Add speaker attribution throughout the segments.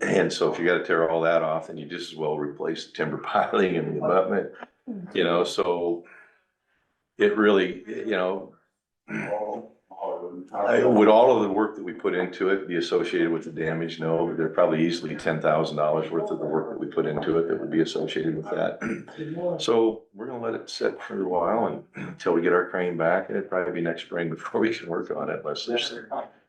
Speaker 1: And so if you gotta tear all that off, then you just as well replace the timber piling and the abutment, you know, so it really, you know, I- Would all of the work that we put into it be associated with the damage? No, but there are probably easily ten thousand dollars worth of the work that we put into it that would be associated with that. So we're gonna let it sit for a while and until we get our crane back, and it'd probably be next spring before we can work on it unless there's.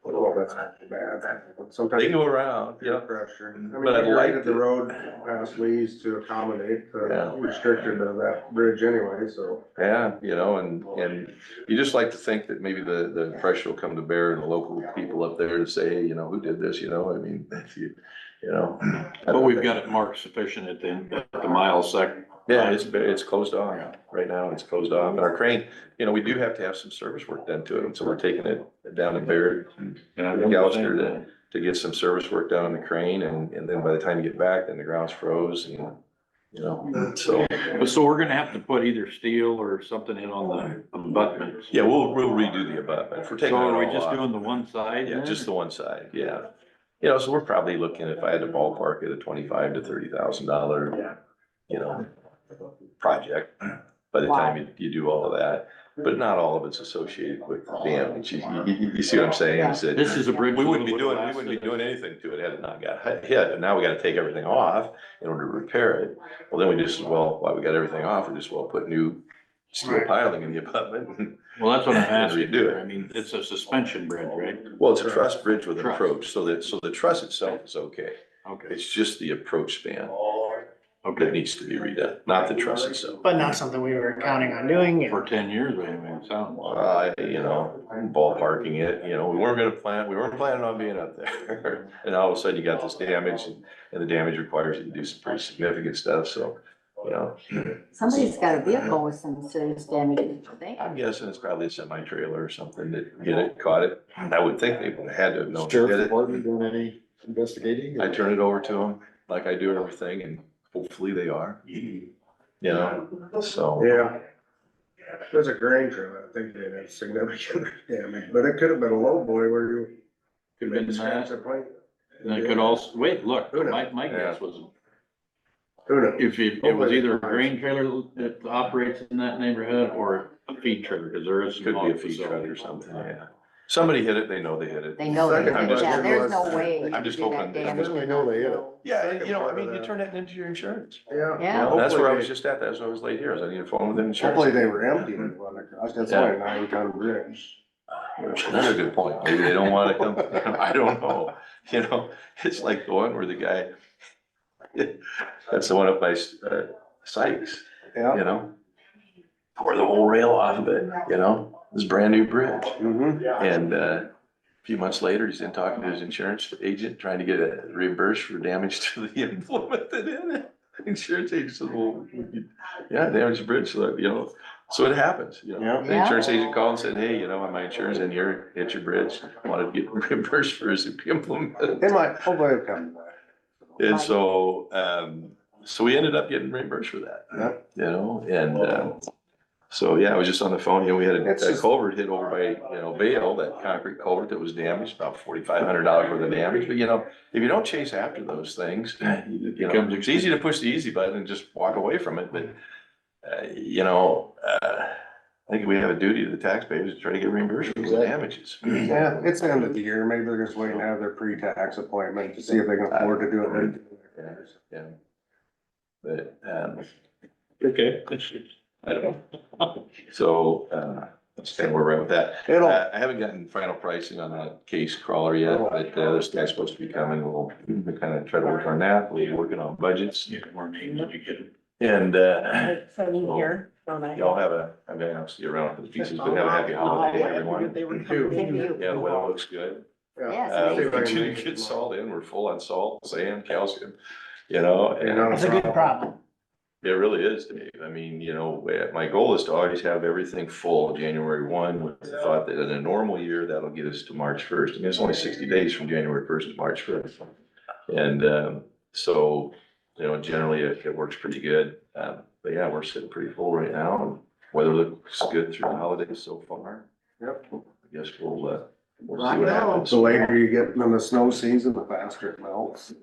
Speaker 2: Well, that's not too bad. Sometimes
Speaker 1: They go around,
Speaker 2: peer
Speaker 1: yeah.
Speaker 2: pressure. I mean,
Speaker 1: But I'd
Speaker 2: we
Speaker 1: like
Speaker 2: rated the
Speaker 1: to-
Speaker 2: road last we used to accommodate,
Speaker 1: Yeah.
Speaker 2: uh, restricted to that bridge anyway, so.
Speaker 1: Yeah, you know, and, and you just like to think that maybe the, the pressure will come to bear and the local people up there to say, hey, you know, who did this, you know, I mean, if you, you know.
Speaker 3: But we've got it marked sufficient at the, at the mile sec.
Speaker 1: Yeah, it's, it's closed off. Right now, it's closed off. And our crane, you know, we do have to have some service work done to it, and so we're taking it down to Barrett
Speaker 3: And I
Speaker 1: Gouster to, to get some service work done on the crane, and, and then by the time you get back, then the ground's froze, and, you know, so.
Speaker 3: But so we're gonna have to put either steel or something in on the abutments.
Speaker 1: Yeah, we'll, we'll redo the abutment. If we're
Speaker 3: So
Speaker 1: taking it
Speaker 3: are we
Speaker 1: all
Speaker 3: just
Speaker 1: off.
Speaker 3: doing the one side?
Speaker 1: Yeah,
Speaker 3: then?
Speaker 1: just the one side, yeah. You know, so we're probably looking, if I had to ballpark it, a twenty-five to thirty thousand dollar, you know, project by the time you, you do all of that. But not all of it's associated with the damage. You, you, you see what I'm saying? Is that
Speaker 3: This is a bridge.
Speaker 1: we
Speaker 3: that
Speaker 1: wouldn't be
Speaker 3: would
Speaker 1: doing, we
Speaker 3: last
Speaker 1: wouldn't be
Speaker 3: us-
Speaker 1: doing anything to it had it not got hit- hit. And now we gotta take everything off in order to repair it. Well, then we just, well, while we got everything off, we just, well, put new steel piling in the abutment.
Speaker 3: Well, that's what I'm asking.
Speaker 1: Redo it.
Speaker 3: I mean, it's a suspension bridge, right?
Speaker 1: Well, it's a truss bridge with an
Speaker 3: Truss.
Speaker 1: approach, so that, so the truss itself is okay.
Speaker 3: Okay,
Speaker 1: It's just the approach span that
Speaker 3: okay.
Speaker 1: needs to be redone, not the truss itself.
Speaker 4: But not something we were counting on doing.
Speaker 3: For ten years, anyway, it sounds like.
Speaker 1: Uh, you know, ballparking it, you know, we weren't gonna plan, we weren't planning on being up there. And all of a sudden you got this damage and, and the damage requires you to do some pretty significant stuff, so, you know.
Speaker 5: Somebody's got a vehicle with some serious damage, don't they?
Speaker 1: I'm guessing it's probably a semi trailer or something that, you know, caught it. I would think they would have had to have known. who did
Speaker 6: Sheriff
Speaker 1: it.
Speaker 6: Department doing any investigating?
Speaker 1: I turn it over to them like I do everything and hopefully they are, you know, so.
Speaker 2: Yeah. There's a grain trail, I think they had significant damage, but it could have been a low boy where you.
Speaker 3: Could
Speaker 2: made
Speaker 3: have
Speaker 2: a
Speaker 3: been
Speaker 2: chance
Speaker 3: that.
Speaker 2: at playing.
Speaker 3: And it could also, wait, look,
Speaker 2: Who knows?
Speaker 3: my, my guess was
Speaker 2: Who knows?
Speaker 3: If it, it was either a grain trailer that operates in that neighborhood or a feed trailer, because there is.
Speaker 1: Could be a feed truck or something, yeah. Somebody hit it, they know they hit it.
Speaker 5: They know, they
Speaker 2: Second, I'm
Speaker 5: did.
Speaker 2: just-
Speaker 5: yeah, there's no way. you
Speaker 1: I'm just
Speaker 5: could do
Speaker 1: hoping
Speaker 5: that
Speaker 1: they-
Speaker 5: damage
Speaker 1: I'm just-
Speaker 6: I know they hit it.
Speaker 1: Yeah, and, you know, I mean, you turn that into your insurance.
Speaker 2: Yeah.
Speaker 5: Yeah.
Speaker 1: You know, That's where I
Speaker 2: Hopefully
Speaker 1: was just at, that's why I was late here, I was on the phone with the
Speaker 2: they- Hopefully
Speaker 1: insurance.
Speaker 2: they were empty when
Speaker 1: Mm-hmm.
Speaker 2: they went across, that's why a nine ton bridge.
Speaker 1: That's a good point, maybe they don't wanna come, I don't know, you know, it's like the one where the guy, that's the one up by uh, Sykes,
Speaker 2: Yeah.
Speaker 1: you know? Pour the whole rail off of it, you know, this brand new bridge.
Speaker 2: Mm-hmm.
Speaker 1: And uh, a few months later, he's in talking to his insurance agent, trying to get it reimbursed for damage to the implement that in it. Insurance agent says, well, yeah, damaged bridge, so, you know, so it happens, you know.
Speaker 2: Yeah.
Speaker 1: The insurance agent called and said, hey, you know, my insurance in here, hit your bridge, wanted to get reimbursed for his implement.
Speaker 2: It might, hopefully it'll come back.
Speaker 1: And so, um, so we ended up getting reimbursed for that, you know, and, um, so, yeah, I was just on the phone, you know, we had a
Speaker 2: It's
Speaker 1: a
Speaker 2: just-
Speaker 1: culvert hit over by, you know, Vale, that concrete culvert that was damaged, about forty-five hundred dollars worth of damage, but you know, if you don't chase after those things, you know,
Speaker 3: Becomes
Speaker 1: it's easy to push the easy button and just walk away from it, but, uh, you know, uh, I think we have a duty to the taxpayers to try to get reimbursed for the
Speaker 6: Exactly.
Speaker 1: damages.
Speaker 2: Yeah, it's the end of the year, maybe they're just waiting to have their pre-tax appointment to see if they can afford to do it. right.
Speaker 1: Yeah. But, um,
Speaker 3: Okay.
Speaker 1: I don't know. So, uh, that's kind of where we're at with that.
Speaker 2: It'll,
Speaker 1: Uh, I haven't gotten final pricing on that case crawler yet, but uh, this guy's supposed to be coming. We'll kind of try to work on that. We're working on budgets.
Speaker 3: More names if you get it.
Speaker 1: And, uh,
Speaker 7: Sitting here, don't I?
Speaker 1: y'all have a, I mean, I'll see you around for the pieces, but have a happy holiday, everyone.
Speaker 7: They were
Speaker 2: Thank
Speaker 7: coming.
Speaker 5: you.
Speaker 1: Yeah, the weather looks good.
Speaker 5: Yes,
Speaker 1: Uh,
Speaker 5: they-
Speaker 1: we continue to get salt in. We're full on salt, sand, calcium, you know, and
Speaker 4: It's a good problem.
Speaker 1: It really is, Dave. I mean, you know, eh, my goal is to always have everything full January one with the thought that in a normal year, that'll get us to March first. I mean, it's only sixty days from January first to March first. And, um, so, you know, generally it, it works pretty good. Um, but yeah, we're sitting pretty full right now and weather looks good through the holidays so far.
Speaker 2: Yep.
Speaker 1: I guess we'll, uh, we'll see what happens.
Speaker 2: The later you get in the snow season, the faster it melts.